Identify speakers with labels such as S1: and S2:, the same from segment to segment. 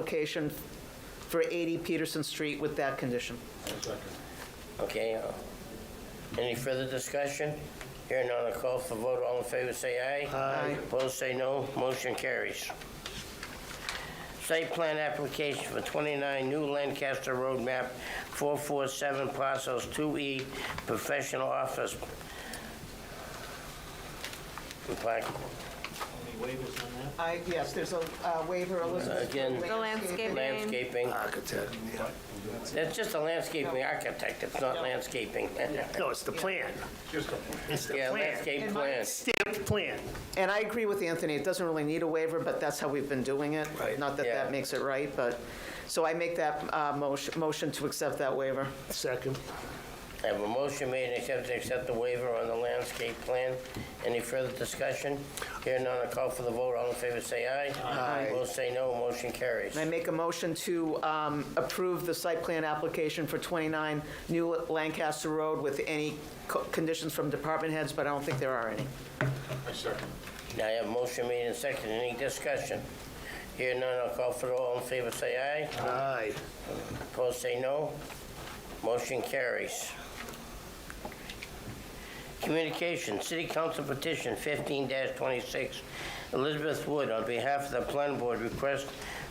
S1: application for 80 Peterson Street with that condition.
S2: Okay, uh, any further discussion? Hearing none, I'll call for vote. All in favor, say aye.
S1: Aye.
S2: Opposed, say no. Motion carries. Site plan application for 29 New Lancaster Road, map 447, parcels 2E, professional office. Plaque.
S1: I, yes, there's a uh, waiver, Elizabeth.
S2: Again. The
S3: landscaping.
S2: Landscaping.
S4: Architect.
S2: It's just a landscaping architect, it's not landscaping.
S4: No, it's the plan. It's the
S2: Yeah,
S4: plan.
S2: landscape plan.
S4: Stamped plan.
S1: And I agree with Anthony, it doesn't really need a waiver, but that's how we've been doing it.
S4: Right.
S1: Not that
S2: Yeah.
S1: that makes it right, but, so I make that uh, motion motion to accept that waiver.
S4: Second.
S2: I have a motion made and accepted to accept the waiver on the landscape plan. Any further discussion? Hearing none, I call for the vote. All in favor, say aye. Aye. Opposed, say no. Motion carries.
S1: And I make a motion to um, approve the site plan application for 29 New Lancaster Road with any co- conditions from department heads, but I don't think there are any.
S2: Now, I have a motion made and seconded. Any discussion? Hearing none, I'll call for the vote. All in favor, say aye.
S4: Aye.
S2: Opposed, say no. Motion carries. Communication, City Council Petition fifteen twenty-six. Elizabeth Wood, on behalf of the planning board, requests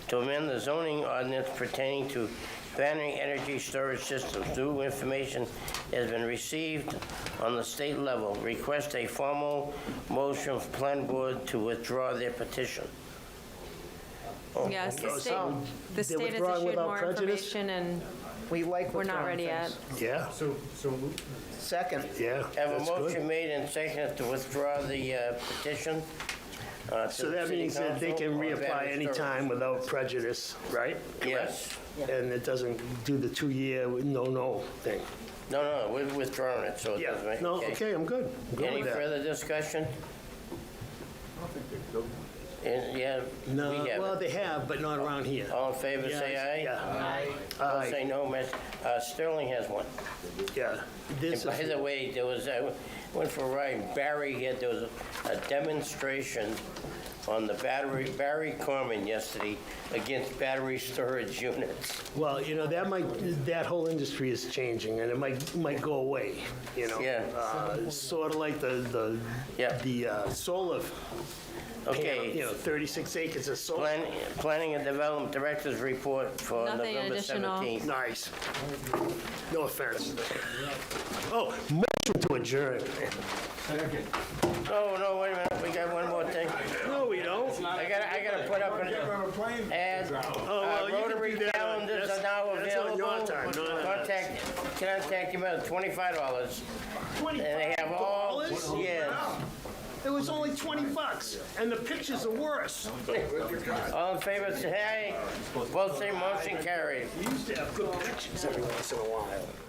S2: to amend the zoning ordinance pertaining to battery energy storage systems. New information has been received on the state level. Request a formal motion from planning board to withdraw their petition.
S3: Yes, the
S4: So,
S3: state,
S4: they
S3: the state has
S4: withdraw
S3: issued
S4: without
S3: more
S4: prejudice?
S3: information, and
S1: We like
S3: we're not
S1: withdrawing
S3: ready yet.
S1: things.
S4: Yeah,
S5: So, so moved.
S1: Second.
S4: yeah.
S2: Have a
S4: that's good.
S2: motion made and seconded to withdraw the uh, petition. uh, to
S4: So
S2: the
S4: that
S2: city
S4: means that they
S2: council
S4: can
S2: on
S4: reapply
S2: Valley
S4: anytime
S2: Storage.
S4: without prejudice, right?
S2: Yes.
S4: And it doesn't do the two-year no-no thing.
S2: No, no, we've withdrawn it, so it
S4: Yeah,
S2: doesn't make...
S4: no, okay, I'm good. I'm good
S2: Any
S4: with that.
S2: further discussion? Eh, Yeah,
S4: No,
S2: we
S4: well,
S2: have it.
S4: they have, but not around here.
S2: All in favor, say aye.
S4: Yeah.
S2: All
S4: Aye.
S2: Say no, Miss, uh, Sterling has one.
S4: Yeah. This
S2: And by
S4: is,
S2: the way, there was, I went for a ride, in Barry, yeah, there was a demonstration on the battery, Barry Corman yesterday against battery storage units.
S4: well, you know, that might, that whole industry is changing, and it might, might go away, you know? Uh,
S2: Yeah.
S4: Sort of like the,
S2: Yeah.
S4: the, the uh, solar, panel, you
S2: Okay,
S4: know, 36 acres of solar.
S2: Plan- Planning and Development Director's Report for
S3: Nothing
S2: November
S3: additional.
S2: 17th.
S4: Nice. No offense. Oh, motion to adjourn.
S2: Oh, no, wait a minute, we got one more thing.
S4: No, we don't.
S2: I gotta, I gotta put up an ad.
S4: Oh, well,
S2: Uh,
S4: you can
S2: Rotary
S4: do that on-
S2: calendars are
S4: that's-
S2: now
S4: that's on your
S2: available.
S4: time, not on ours.
S2: Contact, contact him at $25. And they have all,
S4: $25?
S2: yes.
S4: It was only 20 bucks, and the pictures are worse.
S2: All in favor, say aye. Both say motion carried.
S4: We used to have good pictures every once in a while.